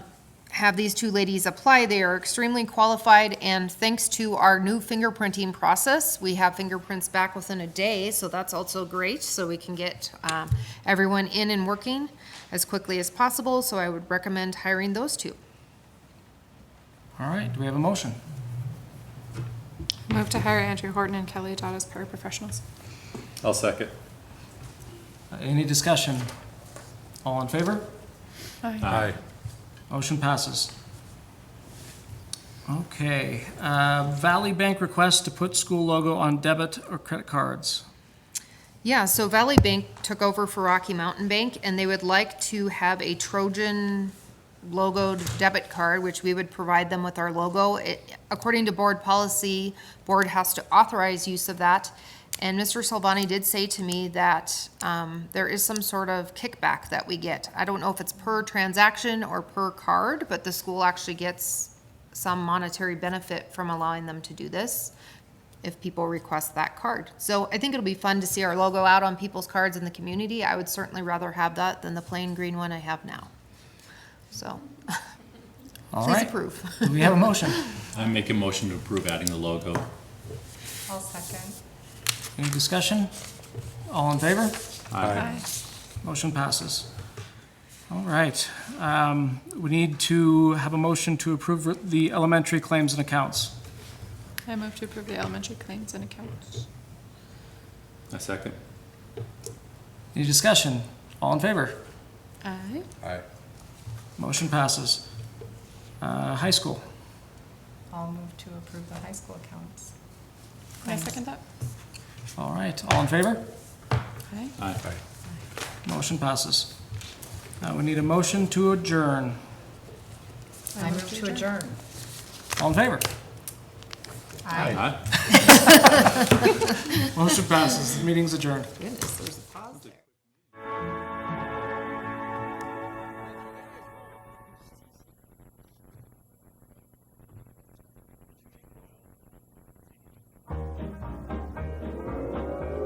have these two ladies apply. They are extremely qualified, and thanks to our new fingerprinting process, we have fingerprints back within a day, so that's also great, so we can get um, everyone in and working as quickly as possible, so I would recommend hiring those two. All right, do we have a motion? Move to hire Andrew Horton and Kelly Dodd as paraprofessionals. I'll second. Uh, Any discussion? All in favor? Aye. Motion passes. Okay, uh, Valley Bank requests to put school logo on debit or credit cards. Yeah, so Valley Bank took over for Rocky Mountain Bank, and they would like to have a Trojan logoed debit card, which we would provide them with our logo. It- According to board policy, board has to authorize use of that. And Mr. Salvani did say to me that um, there is some sort of kickback that we get. I don't know if it's per transaction or per card, but the school actually gets some monetary benefit from allowing them to do this if people request that card. So I think it'll be fun to see our logo out on people's cards in the community. I would certainly rather have that than the plain green one I have now. So All please right. approve. Do we have a motion? I make a motion to approve adding the logo. I'll second. Any discussion? All in favor? Aye. Motion passes. All right, um, we need to have a motion to approve the elementary claims and accounts. I move to approve the elementary claims and accounts. I second. Any discussion? All in favor? Aye. Aye. Motion passes. Uh, High school, I'll move to approve the high school accounts. Can I second that? all right, all in favor? Aye. Aye. Motion passes. Uh, We need a motion to adjourn. I move to adjourn. All in favor? Aye. Motion passes, The meeting's adjourned. Yeah.